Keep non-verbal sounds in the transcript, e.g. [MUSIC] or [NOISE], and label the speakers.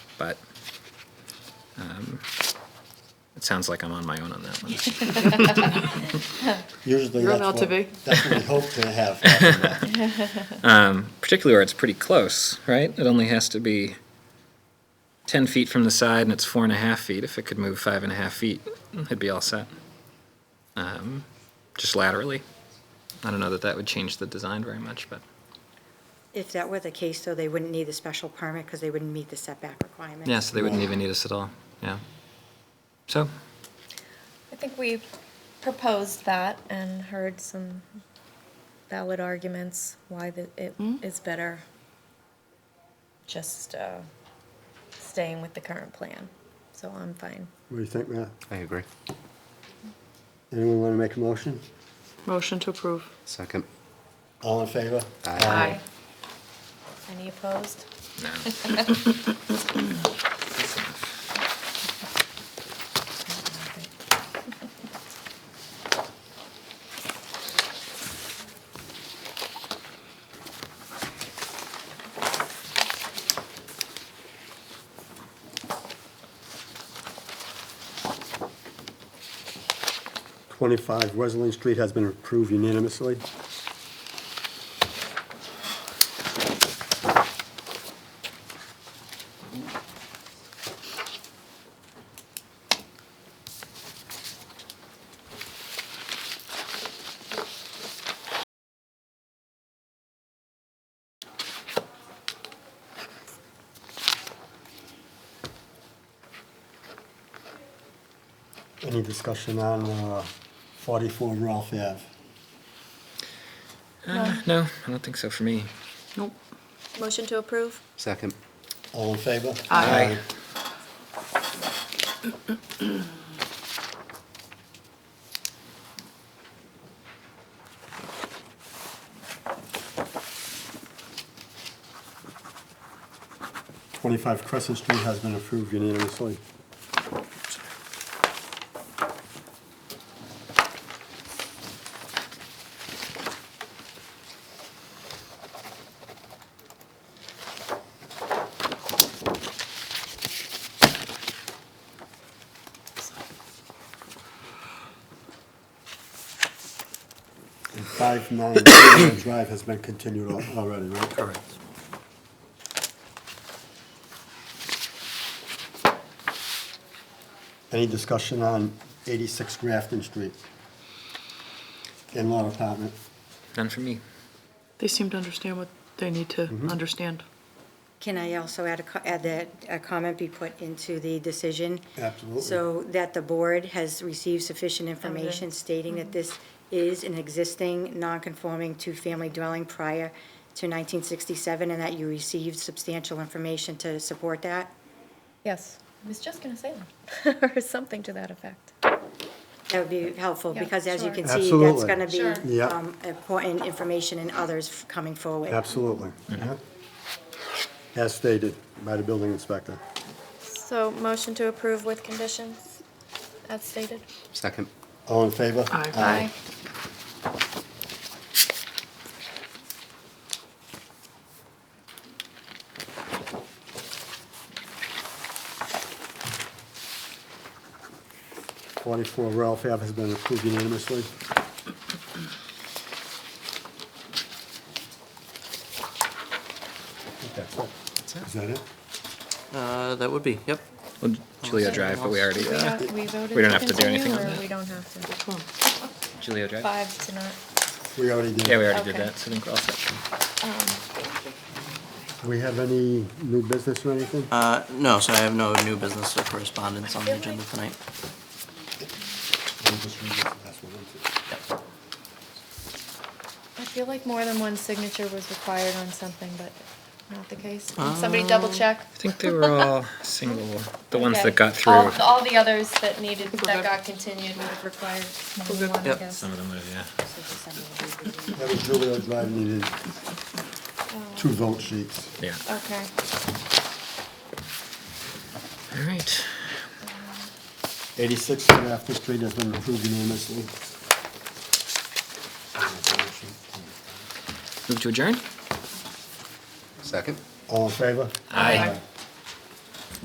Speaker 1: but um, it sounds like I'm on my own on that one. [LAUGHS]
Speaker 2: Usually
Speaker 3: You're
Speaker 2: that's
Speaker 3: allowed
Speaker 2: what,
Speaker 3: to be.
Speaker 2: that's what we hope to have. [LAUGHS] happen, but
Speaker 1: Particularly where it's pretty close, right? It only has to be 10 feet from the side and it's four and a half feet. If it could move five and a half feet, it'd be all set. Um, Just laterally. I don't know that that would change the design very much, but
Speaker 4: If that were the case, though, they wouldn't need a special permit because they wouldn't meet the setback requirement.
Speaker 1: yeah, so they wouldn't even need us at all, yeah. So,
Speaker 5: I think we proposed that and heard some valid arguments why the, it is better just uh, staying with the current plan. So I'm fine.
Speaker 2: What do you think, Matt?
Speaker 6: I agree.
Speaker 2: Anyone want to make a motion?
Speaker 3: Motion to approve.
Speaker 6: Second.
Speaker 2: All in favor?
Speaker 3: Aye.
Speaker 5: Any opposed?
Speaker 1: no.
Speaker 2: Twenty-five Wesleyan Street has been approved unanimously. Any discussion on uh, forty-four Ralph Ave?
Speaker 1: No, I don't think so for me.
Speaker 3: Nope.
Speaker 5: Motion to approve?
Speaker 6: Second.
Speaker 2: All in favor?
Speaker 3: Aye.
Speaker 2: Twenty-five Crescent Street has been approved unanimously. And five nine Deerfield Drive has been continued al- already, right? Correct. Any discussion on eighty-six Grafton Street? In-law apartment.
Speaker 1: None for me.
Speaker 3: They seem to understand what they need to understand.
Speaker 4: Can I also add a, co- add that a comment be put into the decision?
Speaker 2: Absolutely.
Speaker 4: So that the board has received sufficient information
Speaker 5: Evidence. Mm-hmm.
Speaker 4: stating that this is an existing non-conforming two-family dwelling prior to 1967, and that you received substantial information to support that?
Speaker 5: Yes. I was just going to say that, [LAUGHS] or something to that effect.
Speaker 4: That would be helpful,
Speaker 5: Yeah,
Speaker 4: because as you
Speaker 5: sure.
Speaker 4: can see, that's
Speaker 2: Absolutely.
Speaker 4: going to
Speaker 5: Sure.
Speaker 4: be
Speaker 2: Yeah.
Speaker 4: um, important information and others f- coming forward.
Speaker 2: Absolutely. yeah. As stated by the building inspector.
Speaker 5: So motion to approve with conditions, as stated?
Speaker 6: Second.
Speaker 2: All in favor?
Speaker 3: Aye.
Speaker 2: Forty-four Ralph Ave has been approved unanimously. I think that's it. Is that it?
Speaker 7: Uh, that would be, yep.
Speaker 1: Well, Julia Drive, but we already,
Speaker 5: We
Speaker 1: uh,
Speaker 5: don't- we voted
Speaker 1: we don't
Speaker 5: to
Speaker 1: have to do anything
Speaker 5: continue,
Speaker 1: on
Speaker 5: or
Speaker 1: that.
Speaker 5: We don't have to.
Speaker 1: Julia Drive?
Speaker 5: Five to not.
Speaker 2: We already did.
Speaker 1: Yeah, we already did
Speaker 5: Okay.
Speaker 1: that, so I think we're all set.
Speaker 5: um,
Speaker 2: Do we have any new business or anything?
Speaker 7: Uh, no, so I have no new business or correspondence on the agenda tonight.
Speaker 2: We'll just read this last one, isn't it?
Speaker 7: Yep.
Speaker 5: I feel like more than one signature was required on something, but not the case.
Speaker 1: Um,
Speaker 5: Can Somebody double check.
Speaker 1: I think they were all single, the ones that
Speaker 5: Okay.
Speaker 1: got
Speaker 5: All-
Speaker 1: through.
Speaker 5: All the others that needed,
Speaker 3: we're
Speaker 5: that
Speaker 3: good.
Speaker 5: got continued would have required more than one, I
Speaker 7: Yep.
Speaker 5: guess.
Speaker 1: Some of them would have, yeah.
Speaker 2: That was Julia Drive needed two vote sheets.
Speaker 1: Yeah.
Speaker 5: Okay.
Speaker 1: All right.
Speaker 2: 86 Grafton Street has been approved unanimously.
Speaker 1: Move to adjourn?
Speaker 6: Second.
Speaker 2: All in favor?
Speaker 1: Aye.